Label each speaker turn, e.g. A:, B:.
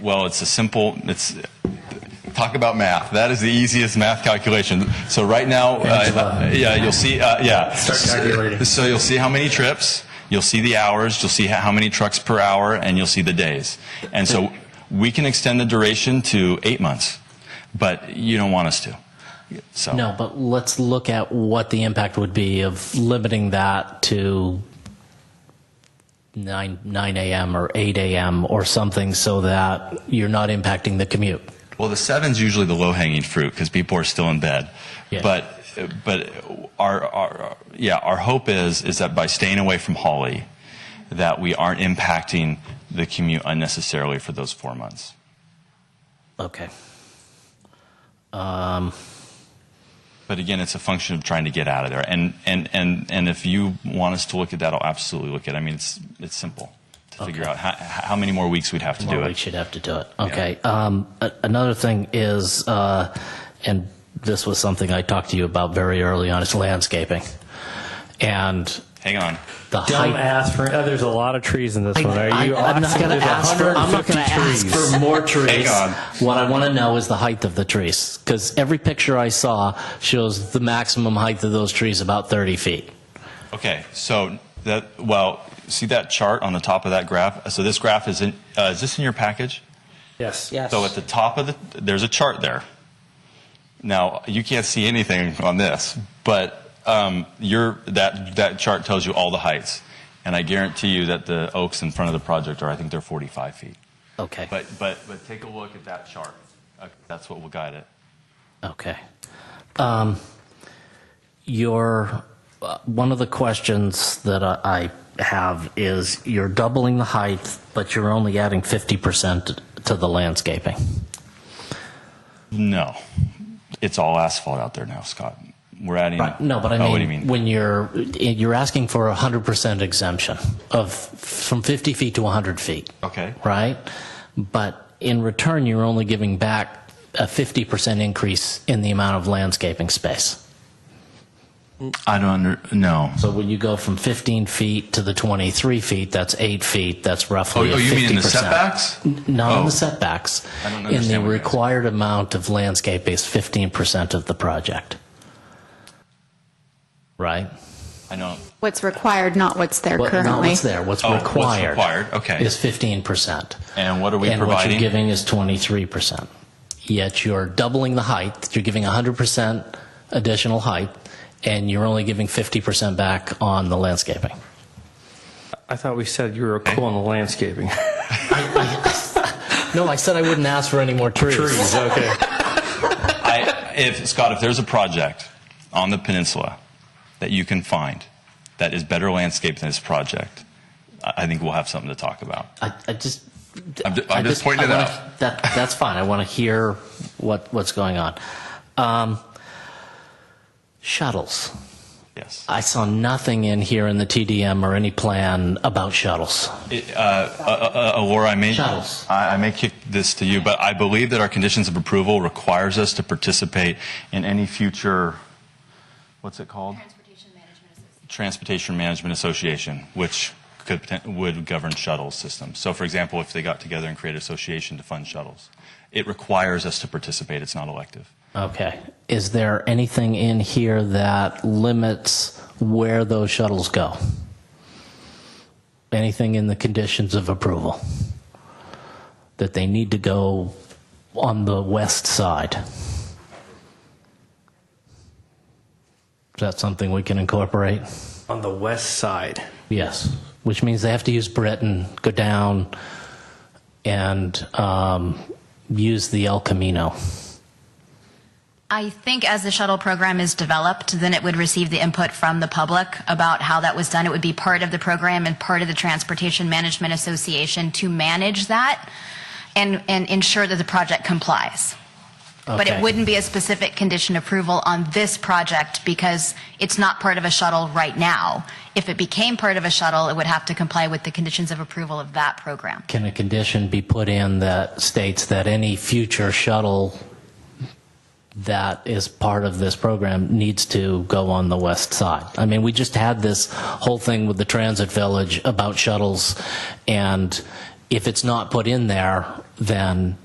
A: Well, it's a simple, it's, talk about math. That is the easiest math calculation. So right now, uh, yeah, you'll see, uh, yeah.
B: Start calculating.
A: So you'll see how many trips, you'll see the hours, you'll see ho- how many trucks per hour, and you'll see the days. And so we can extend the duration to eight months, but you don't want us to. So
C: No, but let's look at what the impact would be of limiting that to nine nine a.m. or eight a.m. or something, so that you're not impacting the commute.
A: Well, the seven's usually the low hanging fruit because people are still in bed.
C: Yeah.
A: But but our, our yeah our hope is is that by staying away from Holly, that we aren't impacting the commute unnecessarily for those four months.
C: Okay.
A: But again, it's a function of trying to get out of there. And and and and if you want us to look at that, I'll absolutely look at. it. I mean, it's it's simple to figure out how, how many more weeks we'd have to do
C: Well,
A: it.
C: we should have to do it. Okay. Um, a- another thing is, uh, and this was something I talked to you about very early on, is landscaping, and
A: Hang on.
C: the
B: Don't
C: height.
B: ask for. Oh, there's a lot of trees in this one. Are you
C: am not
B: asking-
C: going to
B: there's
C: ask for. I'm not
B: 150
C: going to ask
B: trees.
C: for more
A: Hang
C: trees.
A: on.
C: What I want to know is the height of the trees, because every picture I saw shows the maximum height of those trees about 30 feet.
A: Okay, so that well, see that chart on the top of that graph. So this graph is in. Uh, is this in your package?
B: Yes.
D: Yes.
A: So at the top of the, there's a chart there. Now you can't see anything on this, but um, your that that chart tells you all the heights, and I guarantee you that the oaks in front of the project are I think they're 45 feet.
C: Okay.
A: But but but take a look at that chart. Uh, That's what will guide it.
C: Okay. Um, your uh, one of the questions that I, I have is you're doubling the height, but you're only adding 50% to the landscaping.
A: No, it's all asphalt out there now, Scott. We're adding.
C: No, but I mean,
A: oh, what do you mean?
C: when you're you're asking for a 100% exemption of from 50 feet to 100 feet.
A: Okay.
C: Right? But in return, you're only giving back a 50% increase in the amount of landscaping space.
A: I don't under. No.
C: So when you go from 15 feet to the 23 feet, that's eight feet. That's
A: Oh,
C: roughly.
A: oh,
C: a
A: you mean in the
C: 50%.
A: setbacks?
C: Not in
A: Oh.
C: the setbacks.
A: I don't
C: in the
A: understand what you're
C: required amount of landscape is 15% of the project. Right.
A: I know.
E: What's required, not what's there
C: What-
E: currently.
C: not what's there. What's
A: Oh, what's
C: required?
A: required, okay.
C: Is 15%.
A: And what are we
C: and what
A: providing?
C: you're giving is 23%. Yet you're doubling the height. You're giving 100% additional height, and you're only giving 50% back on the landscaping.
B: I thought we said you were cool on the landscaping.
C: No, I said I wouldn't ask for any more trees.
B: trees. Okay.
A: I, if Scott, if there's a project on the peninsula that you can find that is better landscaped than this project, I I think we'll have something to talk about.
C: I, I just.
A: I'm ju- I'm
C: I
A: just pointing
C: I
A: it
C: wanna-
A: out.
C: That, that's fine. I want to hear what, what's going on. Um, shuttles.
A: Yes.
C: I saw nothing in here in the TDM or any plan about shuttles.
A: It, uh, uh, uh, uh, Laura, I may
C: Shuttles.
A: I, I may kick this to you, but I believe that our conditions of approval requires us to participate in any future. What's it called?
F: Transportation Management Association.
A: Transportation Management Association, which could poten- would govern shuttle systems. So, for example, if they got together and created an association to fund shuttles, it requires us to participate. It's not elective.
C: Okay. Is there anything in here that limits where those shuttles go? Anything in the conditions of approval? That they need to go on the west side? Is that something we can incorporate?
B: on the west side.
C: Yes. Which means they have to use Britain, go down, and um, use the El Camino.
F: I think as the shuttle program is developed, then it would receive the input from the public about how that was done. It would be part of the program and part of the Transportation Management Association to manage that and, and ensure that the project complies. But
C: Okay.
F: it wouldn't be a specific condition approval on this project because it's not part of a shuttle right now. If it became part of a shuttle, it would have to comply with the conditions of approval of that program.
C: Can a condition be put in that states that any future shuttle that is part of this program needs to go on the west side? I mean, we just had this whole thing with the transit village about shuttles, and if it's not put in there, then